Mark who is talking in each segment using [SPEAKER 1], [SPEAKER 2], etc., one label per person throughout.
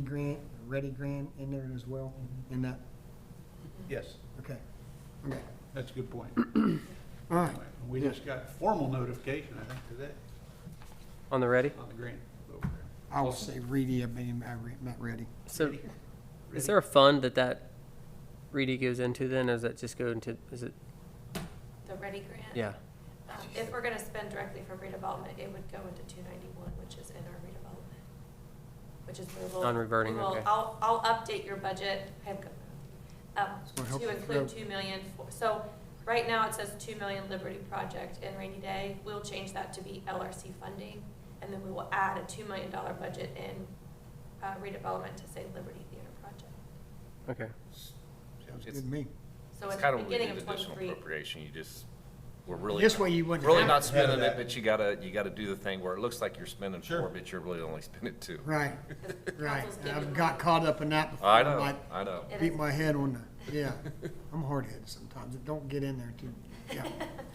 [SPEAKER 1] grant, ready grant in there as well, in that,
[SPEAKER 2] Yes,
[SPEAKER 1] okay, Mm-hmm. okay,
[SPEAKER 2] that's a good point.
[SPEAKER 1] all right.
[SPEAKER 2] We just got formal notification, I think, today
[SPEAKER 3] On the ready?
[SPEAKER 2] on the grant over there.
[SPEAKER 1] I will say ready, I mean, I uh, re- not ready.
[SPEAKER 3] So
[SPEAKER 2] Ready?
[SPEAKER 3] is there a fund that that Reedy goes into then, or does that just go into, is it,
[SPEAKER 4] The Ready Grant?
[SPEAKER 3] yeah?
[SPEAKER 4] Um, If we're gonna spend directly for redevelopment, it would go into two ninety-one, which is in our redevelopment, which is where we'll.
[SPEAKER 3] Non-reverting,
[SPEAKER 4] we will-
[SPEAKER 3] okay.
[SPEAKER 4] I'll, I'll update your budget, I have, um,
[SPEAKER 1] So help
[SPEAKER 4] to
[SPEAKER 1] us grow.
[SPEAKER 4] include two million, for- so, right now it says two million Liberty Project and rainy day, we'll change that to be LRC funding, and then we will add a two million dollar budget in uh, redevelopment to say Liberty Theater Project.
[SPEAKER 3] Okay.
[SPEAKER 2] Sounds
[SPEAKER 1] Good
[SPEAKER 2] good.
[SPEAKER 1] to me.
[SPEAKER 4] So
[SPEAKER 5] It's
[SPEAKER 4] at
[SPEAKER 5] kind
[SPEAKER 4] the
[SPEAKER 5] of what we
[SPEAKER 4] beginning
[SPEAKER 5] did
[SPEAKER 4] of
[SPEAKER 5] additional
[SPEAKER 4] twenty-three,
[SPEAKER 5] appropriation, you just, we're really.
[SPEAKER 1] This
[SPEAKER 5] not-
[SPEAKER 1] way you wouldn't
[SPEAKER 5] Really
[SPEAKER 1] have
[SPEAKER 5] not
[SPEAKER 1] to
[SPEAKER 2] have
[SPEAKER 5] spending it,
[SPEAKER 2] that.
[SPEAKER 5] but you gotta, you gotta do the thing where it looks like you're spending
[SPEAKER 2] Sure.
[SPEAKER 5] four, but you're really only spending two.
[SPEAKER 1] Right, right.
[SPEAKER 4] council's
[SPEAKER 1] I
[SPEAKER 4] giving
[SPEAKER 1] got
[SPEAKER 4] money.
[SPEAKER 1] caught up in that before.
[SPEAKER 5] I
[SPEAKER 1] I'm
[SPEAKER 5] know,
[SPEAKER 1] like,
[SPEAKER 5] I know.
[SPEAKER 4] It
[SPEAKER 1] Beat
[SPEAKER 4] is.
[SPEAKER 1] my head on the, yeah, I'm hard-headed sometimes, it don't get in there too, yeah.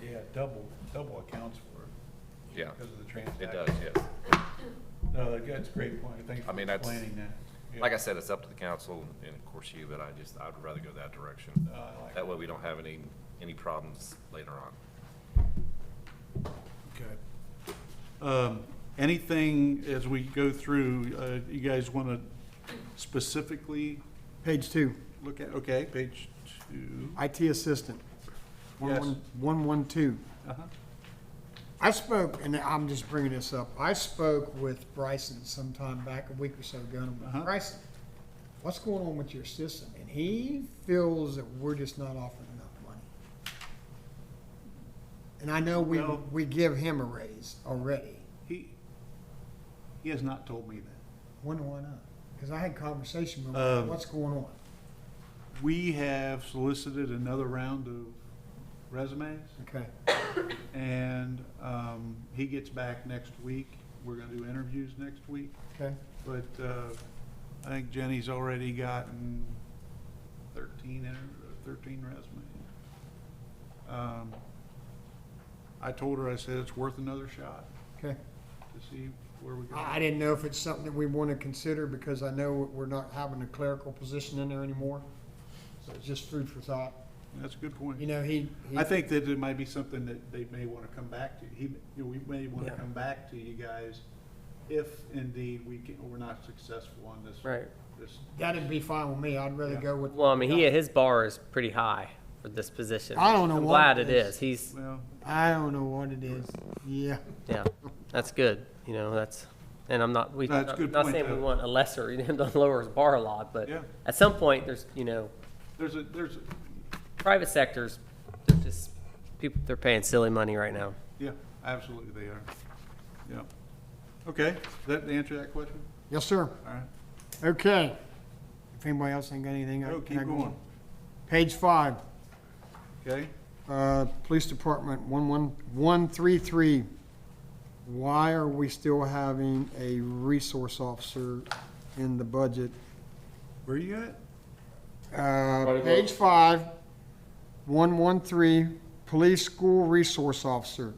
[SPEAKER 2] Yeah, double, double accounts for it
[SPEAKER 5] Yeah,
[SPEAKER 2] because of the
[SPEAKER 5] it
[SPEAKER 2] transaction.
[SPEAKER 5] does, yes.
[SPEAKER 2] No, that's a great point. Thanks
[SPEAKER 5] I
[SPEAKER 2] for
[SPEAKER 5] mean, that's-
[SPEAKER 2] explaining that. Yeah.
[SPEAKER 5] Like I said, it's up to the council and of course you, but I just, I'd rather go that direction.
[SPEAKER 2] No, Uh, I like
[SPEAKER 5] That way we don't have any, any problems later on.
[SPEAKER 2] Okay. Um, Anything as we go through, uh, you guys want to specifically
[SPEAKER 1] Page two,
[SPEAKER 2] look at, okay, page two.
[SPEAKER 1] IT assistant,
[SPEAKER 2] Yes.
[SPEAKER 1] one-one-one-one-two.
[SPEAKER 2] Uh-huh.
[SPEAKER 1] I spoke, and I'm just bringing this up, I spoke with Bryson sometime back, a week or so ago, and I'm
[SPEAKER 2] Uh-huh.
[SPEAKER 1] like, Bryson, what's going on with your system? And he feels that we're just not offering enough money. And I know we,
[SPEAKER 2] No.
[SPEAKER 1] we give him a raise already.
[SPEAKER 2] He, he has not told me that.
[SPEAKER 1] Wonder why not? Because I had conversation with
[SPEAKER 2] Um,
[SPEAKER 1] him, what's going on?
[SPEAKER 2] We have solicited another round of resumes.
[SPEAKER 1] Okay,
[SPEAKER 2] And um, he gets back next week. We're going to do interviews next week.
[SPEAKER 1] okay,
[SPEAKER 2] But uh, I think Jenny's already gotten 13, inter- 13 resumes. Um, I told her, I said, it's worth another shot
[SPEAKER 1] okay.
[SPEAKER 2] to see where we go.
[SPEAKER 1] I I didn't know if it's something that we want to consider because I know we're not having a clerical position in there anymore. So it's just food for thought.
[SPEAKER 2] That's a good
[SPEAKER 1] You
[SPEAKER 2] point.
[SPEAKER 1] know, he. he-
[SPEAKER 2] I think that it might be something that they may want to come back to. He, you know, we may want to
[SPEAKER 3] Yeah.
[SPEAKER 2] come back to you guys if indeed we can, we're not successful on this.
[SPEAKER 3] Right.
[SPEAKER 2] This
[SPEAKER 1] That'd be fine with me. I'd rather
[SPEAKER 2] Yeah.
[SPEAKER 1] go with.
[SPEAKER 3] Well, I mean, he, his bar is pretty high for this position.
[SPEAKER 1] I don't know
[SPEAKER 3] I'm
[SPEAKER 1] what
[SPEAKER 3] glad
[SPEAKER 1] it
[SPEAKER 3] it
[SPEAKER 1] is.
[SPEAKER 3] is. He's,
[SPEAKER 2] Well,
[SPEAKER 1] I don't know what it is. Yeah,
[SPEAKER 3] yeah, that's good, you know, that's, and I'm not, we,
[SPEAKER 2] No, it's a
[SPEAKER 3] not
[SPEAKER 2] good
[SPEAKER 3] not
[SPEAKER 2] point,
[SPEAKER 3] saying we
[SPEAKER 2] though.
[SPEAKER 3] want a lesser, you know, to lower his bar a lot, but
[SPEAKER 2] Yeah.
[SPEAKER 3] at some point, there's, you know,
[SPEAKER 2] there's a, there's, a
[SPEAKER 3] private sectors, they're just, people, they're paying silly money right now.
[SPEAKER 2] yeah, absolutely they are. Yeah. Okay, does that answer that question?
[SPEAKER 1] yes, sir.
[SPEAKER 2] All right.
[SPEAKER 1] Okay. If anybody else ain't got anything, I
[SPEAKER 2] No,
[SPEAKER 1] can
[SPEAKER 2] keep
[SPEAKER 1] I go
[SPEAKER 2] going.
[SPEAKER 1] on? Page five,
[SPEAKER 2] Okay,
[SPEAKER 1] uh, police department one one one three three. Why are we still having a resource officer in the budget?
[SPEAKER 2] where you at?
[SPEAKER 1] Uh, page five, one one three, police school resource officer.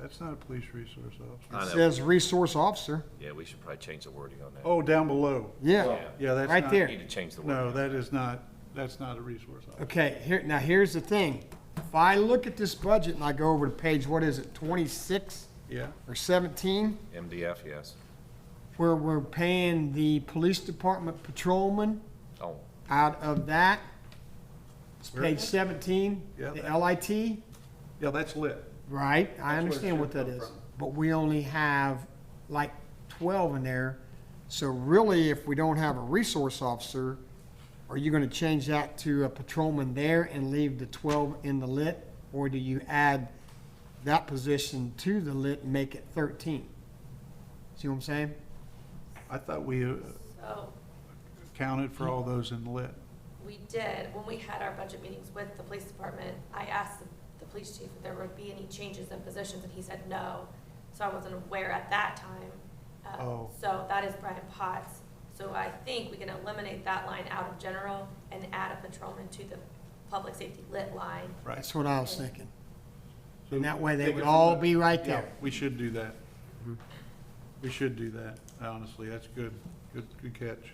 [SPEAKER 2] That's not a police resource officer.
[SPEAKER 5] I
[SPEAKER 1] It
[SPEAKER 5] know.
[SPEAKER 1] says resource officer.
[SPEAKER 5] Yeah, we should probably change the wording on that.
[SPEAKER 2] Oh, down below.
[SPEAKER 1] Yeah,
[SPEAKER 2] Yeah, that's
[SPEAKER 1] Right
[SPEAKER 2] not-
[SPEAKER 1] there.
[SPEAKER 5] We Need to change the
[SPEAKER 2] No,
[SPEAKER 5] wording.
[SPEAKER 2] that is not, that's not a resource officer.
[SPEAKER 1] okay, here, now here's the thing. If I look at this budget and I go over to page, what is it, twenty-six
[SPEAKER 2] Yeah,
[SPEAKER 1] or seventeen?
[SPEAKER 5] MDF, yes.
[SPEAKER 1] Where we're paying the police department patrolman
[SPEAKER 5] Oh,
[SPEAKER 1] out of that. It's
[SPEAKER 2] Where?
[SPEAKER 1] page seventeen,
[SPEAKER 2] Yeah.
[SPEAKER 1] the LIT,
[SPEAKER 2] yeah, that's lit.
[SPEAKER 1] right?
[SPEAKER 2] where
[SPEAKER 1] I
[SPEAKER 2] it
[SPEAKER 1] understand
[SPEAKER 2] should
[SPEAKER 1] what that
[SPEAKER 2] come
[SPEAKER 1] is.
[SPEAKER 2] from.
[SPEAKER 1] But we only have like twelve in there. So really, if we don't have a resource officer, are you gonna change that to a patrolman there and leave the twelve in the lit? Or do you add that position to the lit and make it thirteen? See what I'm saying?
[SPEAKER 2] I thought we uh,
[SPEAKER 4] so.
[SPEAKER 2] counted for all those in lit.
[SPEAKER 4] We did, when we had our budget meetings with the police department, I asked the, the police chief if there would be any changes in positions, and he said no. So I wasn't aware at that time. Uh,
[SPEAKER 2] Oh.
[SPEAKER 4] So that is Brian Potts. So I think we can eliminate that line out of general and add a patrolman to the public safety lit line.
[SPEAKER 2] Right.
[SPEAKER 1] That's what I was thinking.
[SPEAKER 2] So
[SPEAKER 1] And that way they
[SPEAKER 2] take
[SPEAKER 1] would
[SPEAKER 2] it
[SPEAKER 1] all
[SPEAKER 2] from the- Mm-hmm.
[SPEAKER 1] be right
[SPEAKER 2] Yeah,
[SPEAKER 1] there.
[SPEAKER 2] We should do that. We should do that, honestly, that's good, good, good catch.